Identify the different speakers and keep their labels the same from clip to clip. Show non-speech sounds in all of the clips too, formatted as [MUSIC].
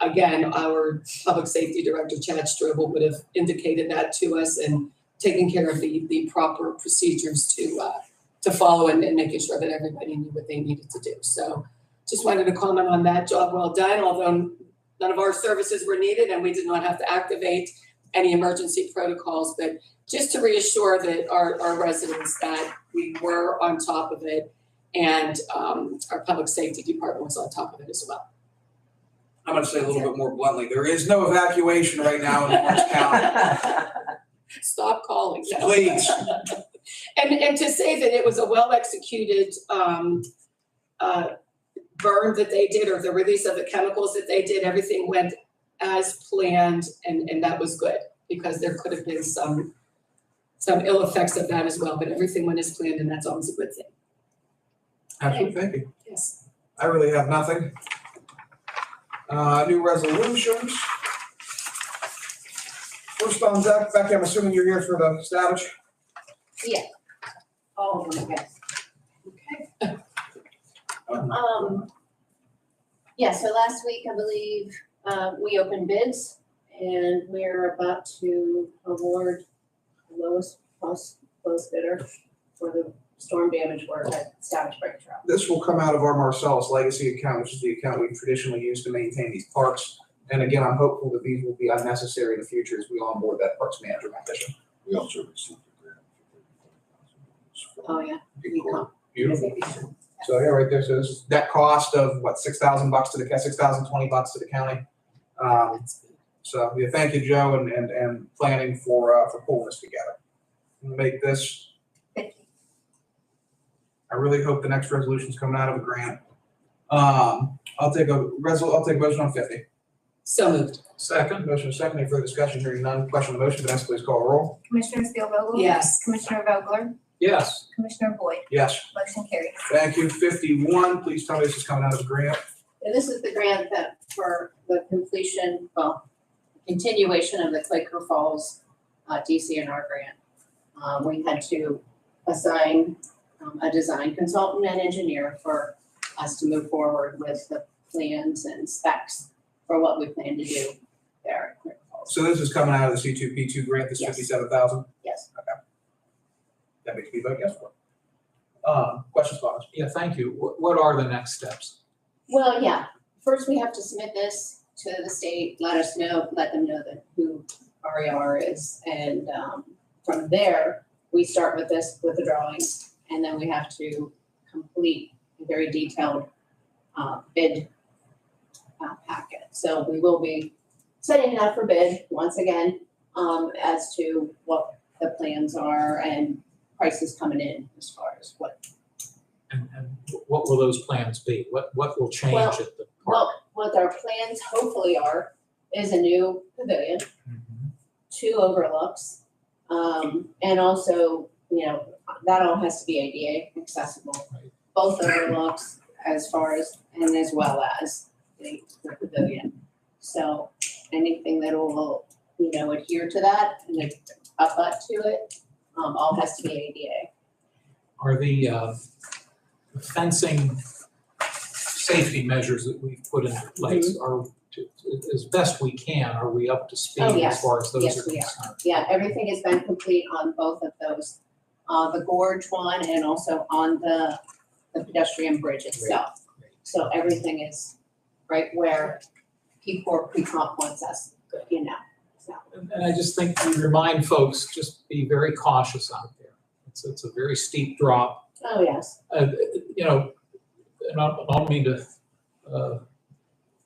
Speaker 1: again, our public safety director, Chad Strobel, would have indicated that to us and taken care of the, the proper procedures to, uh, to follow and, and making sure that everybody knew what they needed to do. So just wanted to comment on that. Job well done, although none of our services were needed and we did not have to activate any emergency protocols. But just to reassure that our, our residents that we were on top of it and, um, our public safety department was on top of it as well.
Speaker 2: I'm gonna say a little bit more bluntly, there is no evacuation right now in Orange County.
Speaker 1: Stop calling. No.
Speaker 2: Please.
Speaker 1: [LAUGHS] And, and to say that it was a well-executed, um, uh, burn that they did or the release of the chemicals that they did, everything went as planned and, and that was good because there could have been some, some ill effects of that as well, but everything went as planned and that's always a good thing.
Speaker 2: Absolutely, thank you.
Speaker 1: Yes.
Speaker 2: I really have nothing. Uh, new resolutions. First on deck, Becky, I'm assuming you're here for the status.
Speaker 3: All of them, yes. Okay.
Speaker 2: Um,
Speaker 3: Um, yeah, so last week, I believe, uh, we opened bids and we're about to award the lowest, most, lowest bidder for the storm damage work at Savage Break Trail.
Speaker 2: This will come out of our Marcellus legacy account, which is the account we traditionally use to maintain these parks. And again, I'm hopeful that these will be unnecessary in the future as we onboard that parks manager position.
Speaker 4: We also received a grant for
Speaker 3: Oh, yeah.
Speaker 2: Beautiful. So yeah, right there, so this is that cost of what, six thousand bucks to the, six thousand twenty bucks to the county. Um, so, yeah, thank you, Joe, and, and, and planning for, uh, for pulling this together. I'm gonna Make this,
Speaker 3: Thank you.
Speaker 2: I really hope the next resolution's coming out of a grant. Um, I'll take a resol, I'll take a motion on fifty.
Speaker 1: So moved.
Speaker 2: Second. Motion is second, any further discussion, hearing none, question on the motion, Vanessa, please call a roll.
Speaker 5: Commissioner Spielvogel?
Speaker 1: Yes.
Speaker 5: Commissioner Vogler?
Speaker 2: Yes.
Speaker 5: Commissioner Boyd?
Speaker 2: Yes,
Speaker 5: Motion carries.
Speaker 2: thank you, fifty-one, please tell me this is coming out of a grant.
Speaker 3: And this is the grant that for the completion, well, continuation of the Quaker Falls uh, DCNR grant. Um, we had to assign um, a design consultant and engineer for us to move forward with the plans and specs for what we plan to do there at Quaker Falls.
Speaker 2: So this is coming out of the C two P two grant, this
Speaker 3: Yes.
Speaker 2: fifty-seven thousand?
Speaker 3: Yes.
Speaker 2: That makes me vote yes for it. Um, questions, comments?
Speaker 6: Yeah, thank you. What, what are the next steps?
Speaker 3: Well, yeah, first we have to submit this to the state, let us know, let them know that who RER is. And um, from there, we start with this, with the drawings, and then we have to complete a very detailed uh, bid uh, packet. So we will be setting it out for bid once again um, as to what the plans are and prices coming in as far as what
Speaker 6: And, and what will those plans be? What, what will change
Speaker 3: Well,
Speaker 6: at the park?
Speaker 3: Well, what our plans hopefully are is a new pavilion,
Speaker 6: Mhm.
Speaker 3: two overlooks. Um, and also, you know, that all has to be ADA accessible.
Speaker 6: Right.
Speaker 3: Both overlooks as far as, and as well as the the pavilion. So anything that will, you know, adhere to that and then up up to it, um, all has to be ADA.
Speaker 6: Are the, uh, fencing safety measures that we've put in place
Speaker 3: Mm-hmm.
Speaker 6: are, to- as best we can, are we up to speed
Speaker 3: Oh,
Speaker 6: as
Speaker 3: yes.
Speaker 6: far as those
Speaker 3: Yes,
Speaker 6: are
Speaker 3: we are.
Speaker 6: concerned?
Speaker 3: Yeah, everything has been complete on both of those, uh, the gorge one and also on the, the pedestrian bridge itself.
Speaker 6: Great.
Speaker 3: So everything is right where P four pre-comp wants us, you know, so.
Speaker 6: And, and I just think we remind folks, just be very cautious out there. It's, it's a very steep drop.
Speaker 3: Oh, yes.
Speaker 6: uh, you know, and I I don't mean to uh,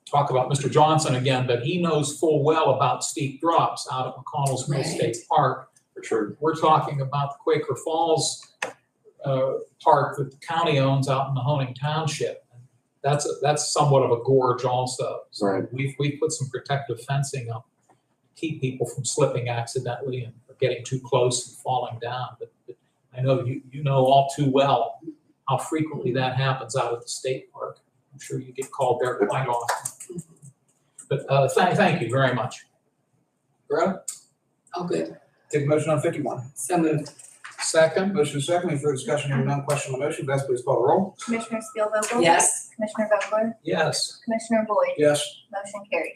Speaker 6: talk about Mr. Johnson again, but he knows full well about steep drops out at McConnell's Mill State Park.
Speaker 4: For sure.
Speaker 6: We're talking about the Quaker Falls uh, Park that the county owns out in Mahoning Township. That's, a- that's somewhat of a gorge also. So
Speaker 4: Right.
Speaker 6: We've, we've put some protective fencing up, to keep people from slipping accidentally and getting too close and falling down. But but I know you, you know all too well how frequently that happens out at the state park. I'm sure you get called there quite often. But uh, thank, thank you very much.
Speaker 2: Greta,
Speaker 1: All good.
Speaker 2: take a motion on fifty-one.
Speaker 1: So moved.
Speaker 6: Second,
Speaker 2: Motion is second, any further discussion, hearing none, question on the motion, Vanessa, please call the roll.
Speaker 5: Commissioner Spielvogel?
Speaker 1: Yes.
Speaker 5: Commissioner Vogler?
Speaker 6: yes.
Speaker 5: Commissioner Boyd?
Speaker 2: Yes.
Speaker 5: Motion carries.